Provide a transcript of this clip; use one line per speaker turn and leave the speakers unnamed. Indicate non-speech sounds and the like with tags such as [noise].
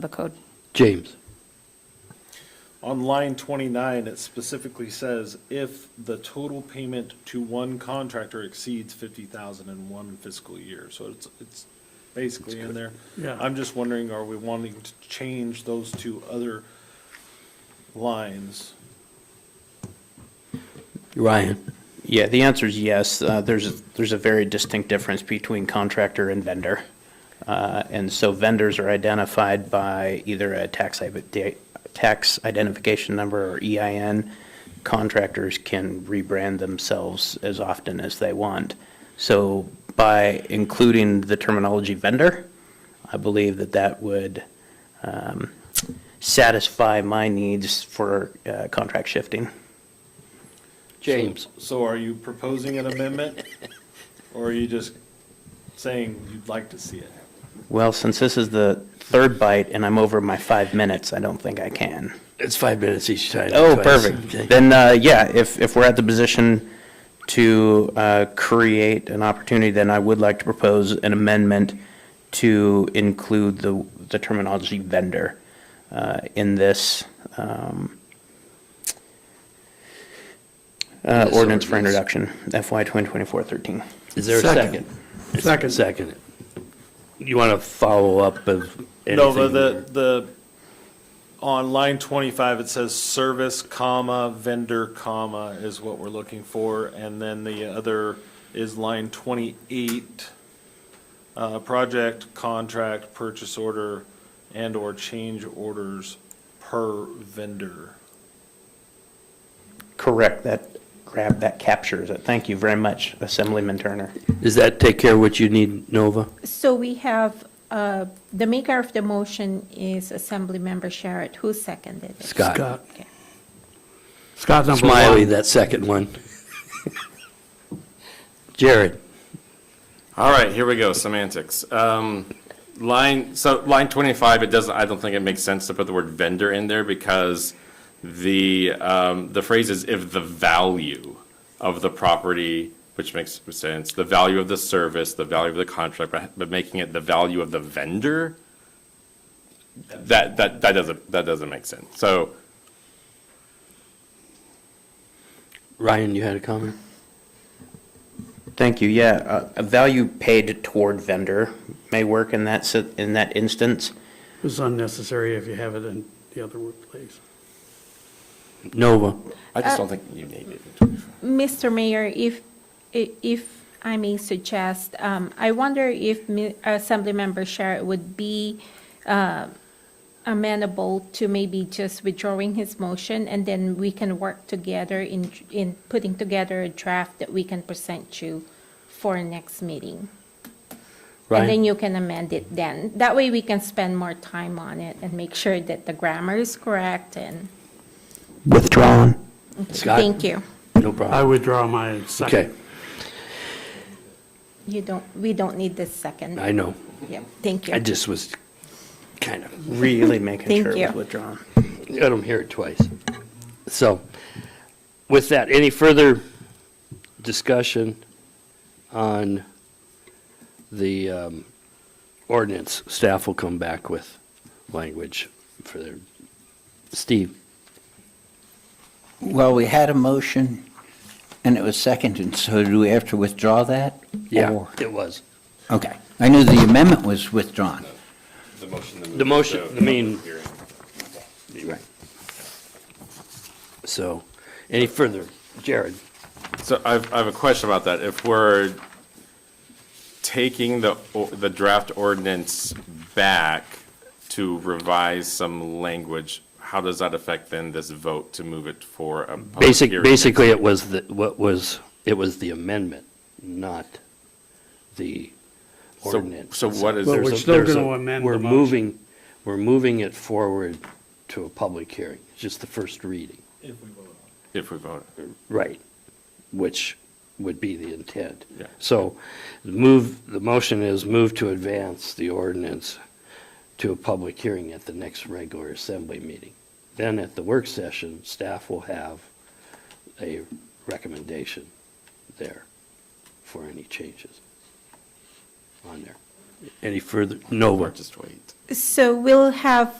the code.
James.
On line 29, it specifically says, if the total payment to one contractor exceeds 50,000 in one fiscal year. So it's, it's basically in there.
Yeah.
I'm just wondering, are we wanting to change those two other lines?
Ryan.
Yeah, the answer is yes. Uh, There's, there's a very distinct difference between contractor and vendor. Uh, And so vendors are identified by either a tax, i- tax identification number or EIN. Contractors can rebrand themselves as often as they want. So by including the terminology vendor, I believe that that would um, satisfy my needs for uh, contract shifting.
James.
So are you proposing an amendment? Or are you just saying you'd like to see it?
Well, since this is the third bite and I'm over my five minutes, I don't think I can.
It's five minutes each time.
Oh,
Twice. Okay.
perfect. Then, uh, yeah, if, if we're at the position to uh, create an opportunity, then I would like to propose an amendment to include the, the terminology vendor uh, in this um, uh,
This
ordinance for
ordinance.
introduction, FY 2024-13.
Is there a second?
Second. Second.
Second. You want to follow up of anything?
No, but the, the, on line twenty-five, it says service, comma, vendor, comma, is what we're looking for. And then the other is line twenty-eight, uh, project, contract, purchase order, and/or change orders per vendor.
Correct, that, grab, that captures it. Thank you very much, Assemblyman Turner.
Does that take care of what you need, Nova?
So we have, uh, the maker of the motion is Assemblymember Sharrett, who seconded it?
Scott.
Scott.
Okay.
Scott number one.
Smiley, that second one. [laughs] Jared.
All right, here we go, semantics. Um, Line, so line 25, it doesn't, I don't think it makes sense to put the word vendor in there because the, um, the phrase is if the value of the property, which makes sense, the value of the service, the value of the contract, but- but making it the value of the vendor, that, that, that doesn't, that doesn't make sense. So
Ryan, you had a comment?
Thank you, yeah. uh, A value paid toward vendor may work in that, si- in that instance.
It's unnecessary if you have it in the other place.
Nova.
I just don't think you need it. in 25.
Mr. Mayor, if, i- if I may suggest, um, I wonder if Mi- Assemblymember Sharrett would be uh, amenable to maybe just withdrawing his motion, and then we can work together in, in putting together a draft that we can present you for next meeting. And then
Ryan.
you can amend it then. That way we can spend more time on it and make sure that the grammar is correct and,
Withdrawn.
Scott.
thank you.
No
I
problem.
withdraw my
Okay,
second.
You don't, we don't need this second.
I know.
Yeah, thank you.
I just was kind of
Really making
Thank
sure it was
you.
withdrawn.
let them hear it twice. So, with that, any further discussion on the um, ordinance? Staff will come back with language for their, Steve,
Well, we had a motion, and it was seconded, so do we have to withdraw that?
yeah,
Or-
it was.
Okay. I knew the amendment was withdrawn.
The motion.
The motion, I mean,
Hearing.
right. So, any further? Jared,
So I've, I have a question about that. If we're taking the, o- the draft ordinance back to revise some language, how does that affect then this vote to move it for a public
basic,
hearing?
basically, it was the, what was, it was the amendment, not the
So-
ordinance.
So what is
Well,
there?
we're
There's a-
still
there's
gonna
a-
amend
We're
the motion.
moving, we're moving it forward to a public hearing, just the first reading.
If we vote on
If we vote,
Right. Which would be the intent.
Yeah.
So the move, the motion is move to advance the ordinance to a public hearing at the next regular assembly meeting. Then at the work session, staff will have a recommendation there for any changes on there.
Any further, no one.
Just wait.
So we'll have